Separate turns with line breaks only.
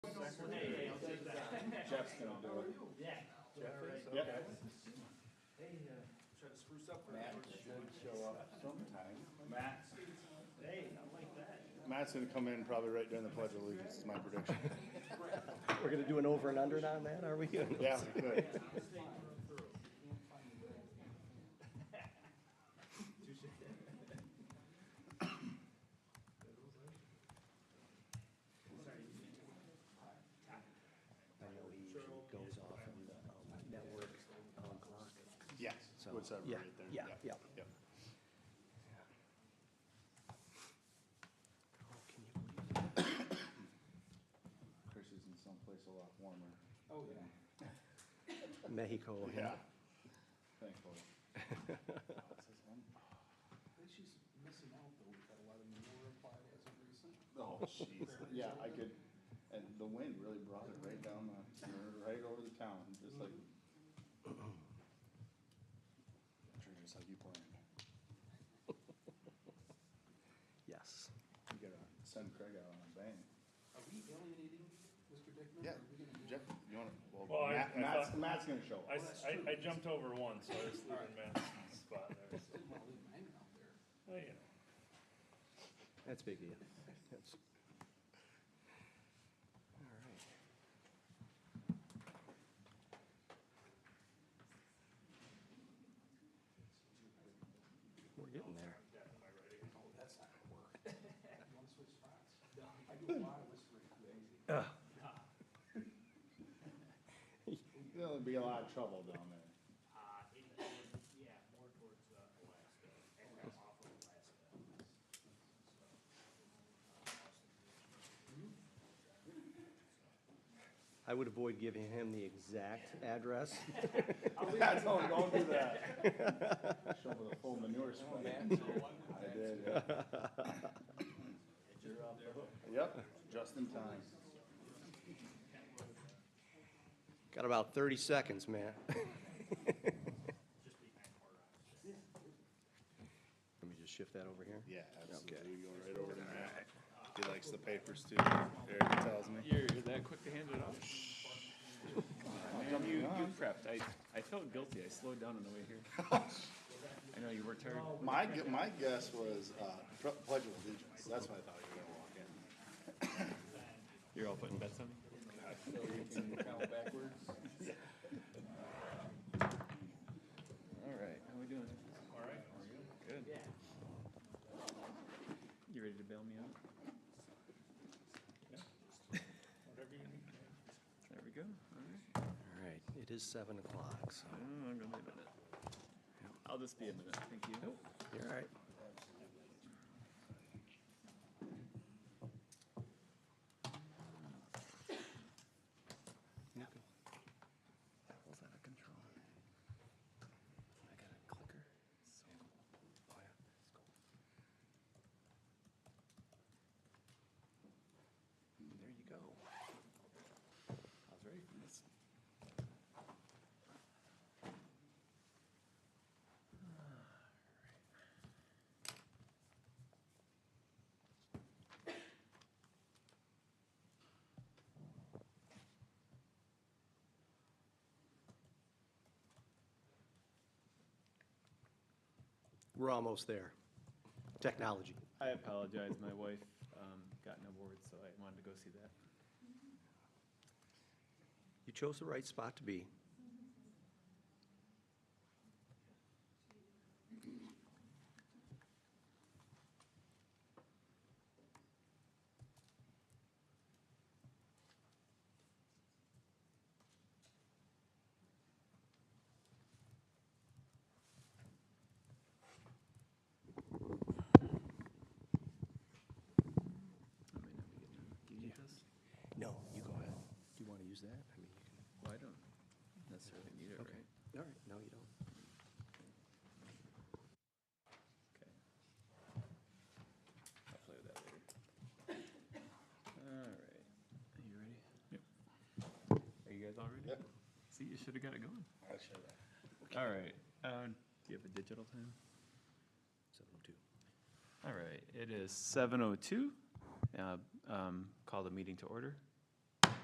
Jeff's gonna do it.
Yeah.
Jeff is,
Yep.
okay.
They, uh,
Try to spruce up. for
Matt
everyone.
should show up sometime. Matt,
they, I like that.
Matt's gonna come in probably right during the pledge of allegiance, is my prediction.
We're gonna do an over and under on that, are we?
Yeah, good.
I know he usually goes off on the um, network um, clock.
Yes,
So-
would separate
Yeah,
it there.
yeah, yeah.
Yep.
Oh, can you believe it?
Chris is in someplace a lot warmer.
Oh, yeah.
Mexico. huh?
Yeah,
Thankfully.
I think she's missing out though. We've had a lot of manure applied as of recent.
Oh, jeez. Yeah, I could, and the wind really brought it right down the, right over the town, just like. Sure, Just like you planned.
Yes.
You gotta send Craig out on a bang.
Are we alienating Mr. Dickman?
yeah.
Are we gonna do-
Jeff, you wanna,
Well,
well,
I-
Matt, Matt's,
I thought-
Matt's gonna show
I,
up.
s- I- I jumped over one, so I was leaving Matt's spot there, so,
Didn't wanna leave mine out there. Oh,
well, you know.
That's big, yeah. That's. All right. We're getting there.
Oh, that's not gonna work. You wanna switch spots? I do a lot of whispering.
There'll be a lot of trouble down there.
Uh, it, it- yeah, more towards uh, Alaska, and now off of Alaska.
I would avoid giving him the exact address.
Yeah, don't, don't do that. Show with a full manure spray. I did, yeah. uh, Yep, just in time.
Got about thirty seconds, man. Let me just shift that over here.
Yeah, absolutely.
Okay.
We go right over to Matt. He likes the papers too, Eric tells me.
You're that quick to hand it off? Man, you, you prepped. I, I felt guilty. I slowed down on the way here. I know you worked hard.
My, gu- my guess was, uh, Pre- pledge of allegiance, that's what I thought you were gonna walk in.
You're all putting bets on me?
So you can count backwards.
All right. How we doing?
All right.
Good. You ready to bail me out?
Whatever you need.
There we go. All right.
All right, it is seven o'clock, so
Oh, I'm gonna be a minute. I'll just be a minute. Thank you.
you're all right.
Apple's out of control. I got a clicker. So cool. Oh, yeah. It's cool. There you go. I was ready for this.
We're almost there. Technology.
I apologize. My wife um, got an award, so I wanted to go see that.
You chose the right spot to be.
I may not be getting it. Do you need this?
No, you go ahead. Do you want to use that? I mean, you
Well, I don't necessarily need it,
can.
right?
Okay. All right, no, you don't.
Okay. I'll play with that later. All right. Are you ready? Yep. Are you guys all ready?
Yep.
See, you should have got it going.
I should have.
All right. Um, do you have a digital time?
Seven oh two.
oh All right. It is 7:02. Uh, um, Call the meeting to order.